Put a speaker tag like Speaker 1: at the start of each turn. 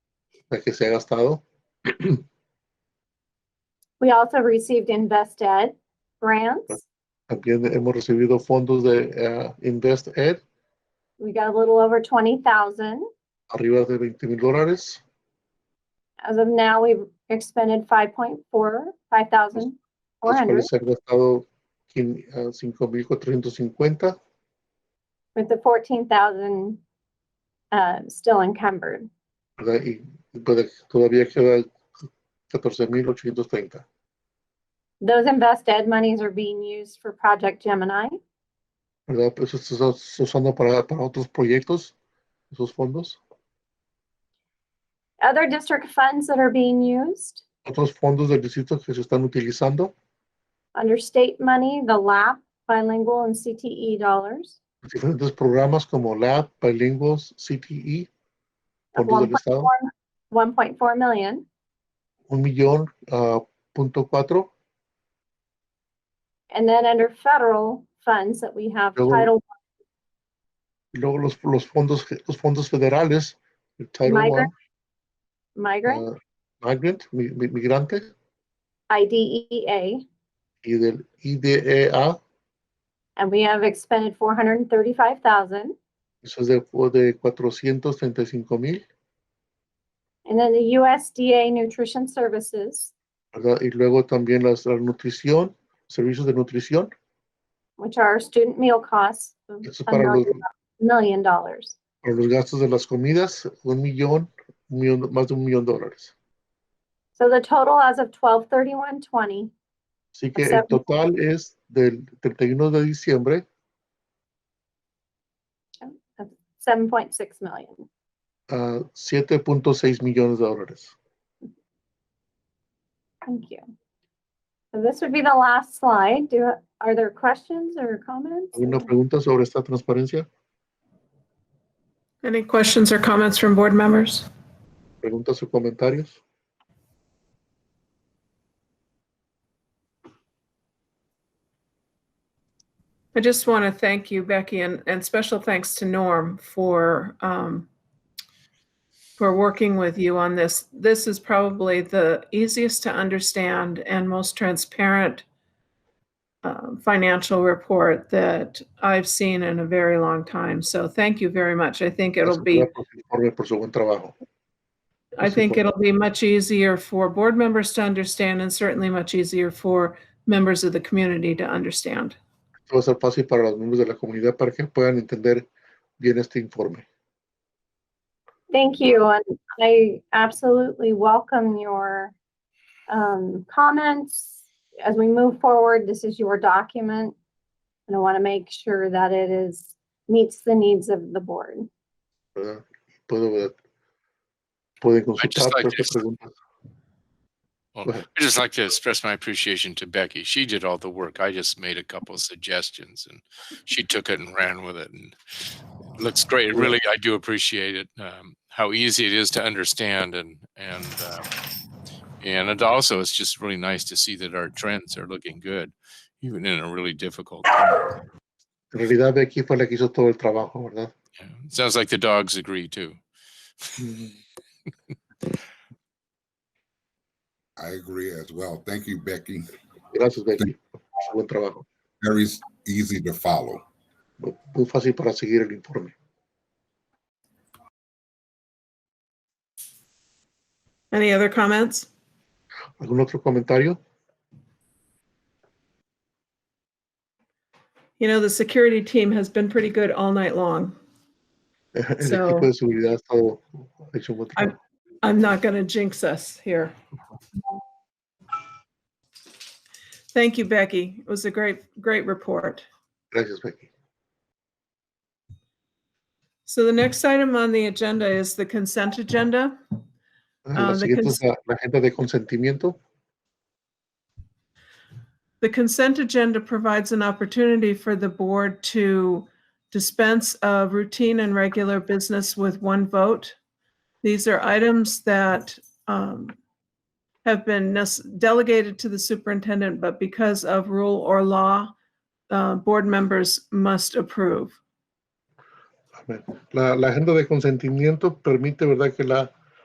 Speaker 1: la que se ha gastado.
Speaker 2: We also received Invest Ed grants.
Speaker 1: También hemos recibido fondos de eh, Invest Ed,
Speaker 2: We got a little over twenty thousand.
Speaker 1: arriba de 20 mil dólares.
Speaker 2: As of now, we've expended five point four, five thousand four
Speaker 1: Los
Speaker 2: hundred,
Speaker 1: cuales se han gastado quin- eh, 5.450
Speaker 2: with the fourteen thousand uh, still encumbered.
Speaker 1: ¿verdad? y pues, todavía queda 14.830.
Speaker 2: Those Invest Ed monies are being used for Project Gemini.
Speaker 1: ¿verdad? Pues esto se está usando para, para otros proyectos, esos fondos.
Speaker 2: Other district funds that are being used,
Speaker 1: Otros fondos del distrito que se están utilizando,
Speaker 2: under state money, the LAP, bilingual and CTE dollars.
Speaker 1: diferentes programas como LAB, Bilingües, CTE,
Speaker 2: of
Speaker 1: fondos del
Speaker 2: 1.4
Speaker 1: Estado,
Speaker 2: One point four million,
Speaker 1: un millón, ah, punto cuatro,
Speaker 2: and then under federal funds that we have
Speaker 1: Luego-
Speaker 2: Title,
Speaker 1: Y luego los, los fondos, los fondos federales, el Title I,
Speaker 2: Migrant, migrant,
Speaker 1: ah, Migrant, mi- mi- migrante,
Speaker 2: IDEA,
Speaker 1: y del E IDEA,
Speaker 2: and we have expended four hundred and thirty-five thousand.
Speaker 1: eso es de, de 435 mil,
Speaker 2: And then the USDA Nutrition Services,
Speaker 1: ¿verdad? Y luego también las, la nutrición, servicios de nutrición,
Speaker 2: which are student meal costs of
Speaker 1: eso es
Speaker 2: a
Speaker 1: para los,
Speaker 2: million- million dollars.
Speaker 1: para los gastos de las comidas, un millón, un millón, más de un millón de dólares.
Speaker 2: So the total as of twelve thirty-one twenty
Speaker 1: Así que el
Speaker 2: Exacto.
Speaker 1: total es del 31 de diciembre,
Speaker 2: of seven point six million.
Speaker 1: a 7.6 millones de dólares.
Speaker 2: Thank you. So this would be the last slide. Do, are there questions or comments?
Speaker 1: ¿Alguna pregunta sobre esta transparencia?
Speaker 3: Any questions or comments from board members?
Speaker 1: ¿Preguntas o comentarios?
Speaker 3: I just want to thank you, Becky, and, and special thanks to Norm for, um, for working with you on this. This is probably the easiest to understand and most transparent um, financial report that I've seen in a very long time. So thank you very much. I think it'll
Speaker 1: Gracias,
Speaker 3: be
Speaker 1: ¿verdad? por su informe, por su buen trabajo.
Speaker 3: I
Speaker 1: Yes,
Speaker 3: think
Speaker 1: Nicole.
Speaker 3: it'll be much easier for board members to understand and certainly much easier for members of the community to understand.
Speaker 1: Esto va a ser fácil para los miembros de la comunidad para que puedan entender bien este informe.
Speaker 2: Thank you, and I absolutely welcome your um, comments. As we move forward, this is your document, and I want to make sure that it is, meets the needs of the board.
Speaker 1: ¿verdad? Puedo, ¿verdad? Pueden consultar
Speaker 4: like
Speaker 1: todas
Speaker 4: this.
Speaker 1: estas preguntas.
Speaker 4: Well,
Speaker 1: Go ahead.
Speaker 4: I'd just like to express my appreciation to Becky. She did all the work. I just made a couple of suggestions and she took it and ran with it and it looks great. Really, I do appreciate it. Um, how easy it is to understand and, and, um, and it also, it's just really nice to see that our trends are looking good, even in a really difficult time.
Speaker 1: En realidad, Becky fue la que hizo todo el trabajo, ¿verdad?
Speaker 4: Yeah. Sounds like the dogs agree too. Mm.
Speaker 5: I agree as well. Thank you, Becky.
Speaker 1: Gracias, Becky, por su buen trabajo.
Speaker 5: Very s- easy to follow.
Speaker 1: Muy muy fácil para seguir el informe.
Speaker 3: Any other comments?
Speaker 1: ¿Algún otro comentario?
Speaker 3: You know, the security team has been pretty good all night long.
Speaker 1: El
Speaker 3: So-
Speaker 1: equipo de seguridad ha estado ha hecho un buen
Speaker 3: I'm-
Speaker 1: trabajo.
Speaker 3: I'm not going to jinx us here. Thank you, Becky. It was a great, great report.
Speaker 1: Gracias, Becky.
Speaker 3: So the next item on the agenda is the consent agenda.
Speaker 1: Ah, La
Speaker 3: the
Speaker 1: siguiente es
Speaker 3: cons-
Speaker 1: la, la agenda de consentimiento.
Speaker 3: The consent agenda provides an opportunity for the board to dispense of routine and regular business with one vote. These are items that um, have been nec- delegated to the superintendent, but because of rule or law, uh, board members must approve.
Speaker 1: Amén. La, la agenda de consentimiento permite, ¿verdad?, que la